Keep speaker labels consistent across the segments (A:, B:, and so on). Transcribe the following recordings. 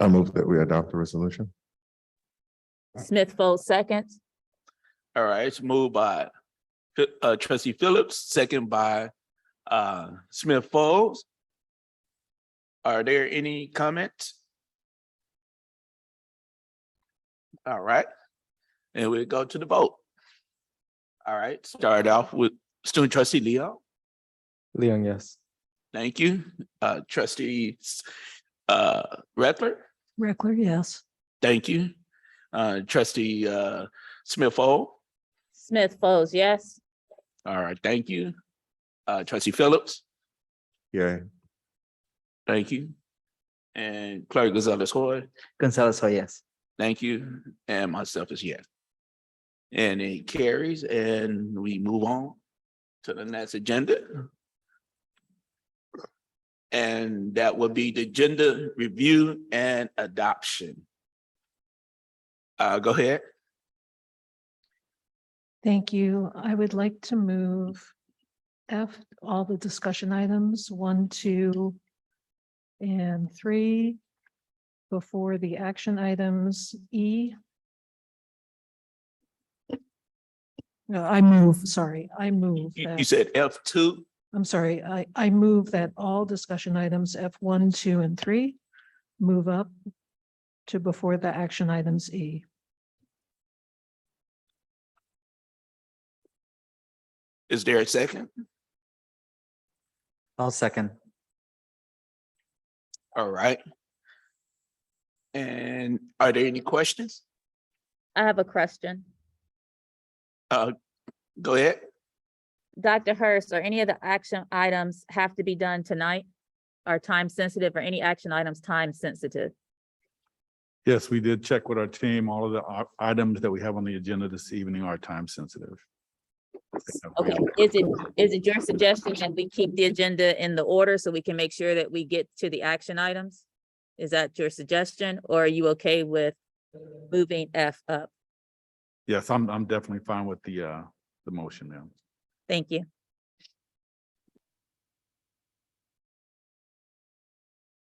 A: I move that we adopt the resolution.
B: Smith Folds seconds.
C: All right, it's moved by uh trustee Phillips, second by uh Smith Folds. Are there any comments? All right, and we go to the vote. All right, start off with student trustee Leo.
D: Leon, yes.
C: Thank you. Uh trustee uh Rattler,
E: Reckler, yes.
C: thank you. Uh trustee uh Smith Folds.
B: Smith Folds, yes.
C: All right, thank you. Uh, trustee Phillips,
A: Yay.
C: thank you. And Clerk Gonzalez Hoy,
D: Gonzalez, oh, yes.
C: thank you, and myself is yes. And it carries and we move on to the next agenda. And that will be the gender review and adoption. Uh, go ahead.
E: Thank you. I would like to move F, all the discussion items, one, two, and three, before the action items, E. No, I move, sorry, I move.
C: You
E: that-
C: you said F two,
E: I'm sorry, I, I move that all discussion items F one, two, and three move up to before the action items E.
C: is there a second?
D: I'll second.
C: All right. And are there any questions?
B: I have a question.
C: Go ahead.
B: Dr. Hurst, are any of the action items have to be done tonight? Are time sensitive or any action items time sensitive?
F: Yes, we did check with our team. All of the i- items that we have on the agenda this evening are time sensitive.
B: Okay, is it, is it your suggestion that we keep the agenda in the order so we can make sure that we get to the action items? Is that your suggestion, or are you okay with moving F up?
F: Yes, I'm, I'm definitely fine with the, uh, the motion now.
B: Thank you.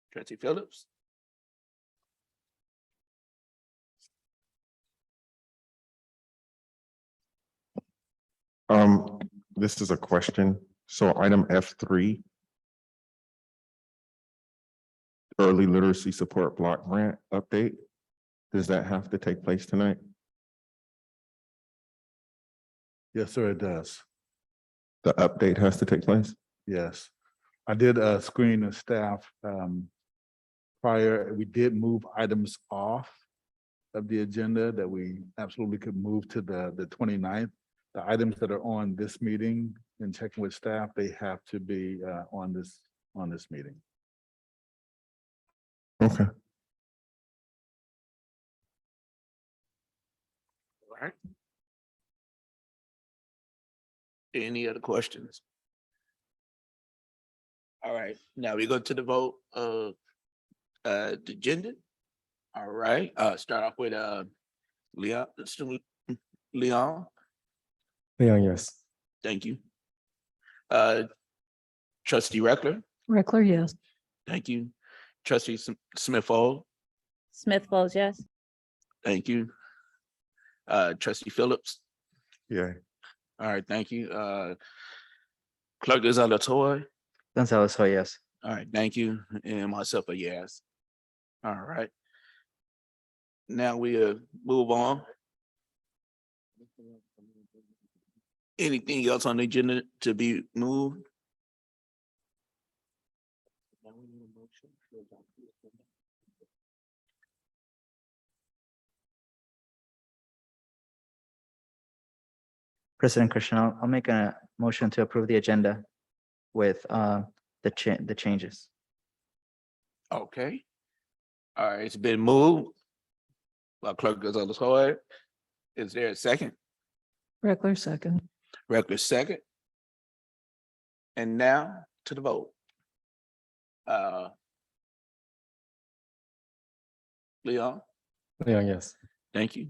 C: Trustee Phillips?
A: Um, this is a question. So item F three. Early literacy support block grant update. Does that have to take place tonight?
F: Yes, sir, it does.
A: The update has to take place?
F: Yes. I did, uh, screen the staff, um, prior, we did move items off of the agenda that we absolutely could move to the, the 29th. The items that are on this meeting and checking with staff, they have to be, uh, on this, on this meeting.
A: Okay.
C: All right. Any other questions? All right, now we go to the vote of uh the agenda. All right, uh start off with uh Leon, student Leon,
D: Leon, yes.
C: thank you. Uh trustee Reckler,
E: Reckler, yes.
C: thank you. Trustee Smith Fall,
B: Smith Folds, yes.
C: thank you. Uh trustee Phillips.
A: Yay.
C: All right, thank you. Uh, Clerk is on the toy.
D: Gonzalez, oh, yes.
C: All right, thank you, and myself a yes. All right. Now we uh move on. Anything else on the agenda to be moved?
D: President Christian, I'll, I'll make a motion to approve the agenda with, uh, the cha- the changes.
C: Okay. All right, it's been moved. By Clerk is on the toy. Is there a second?
E: Reckler, second.
C: Record second. And now to the vote. Uh. Leon,
D: Leon, yes.
C: thank you.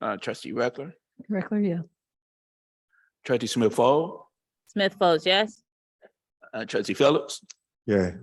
C: Uh, trustee Reckler,
E: Reckler, yes.
C: trustee Smith Fall,
B: Smith Folds, yes.
C: uh, trustee Phillips,
A: Yay.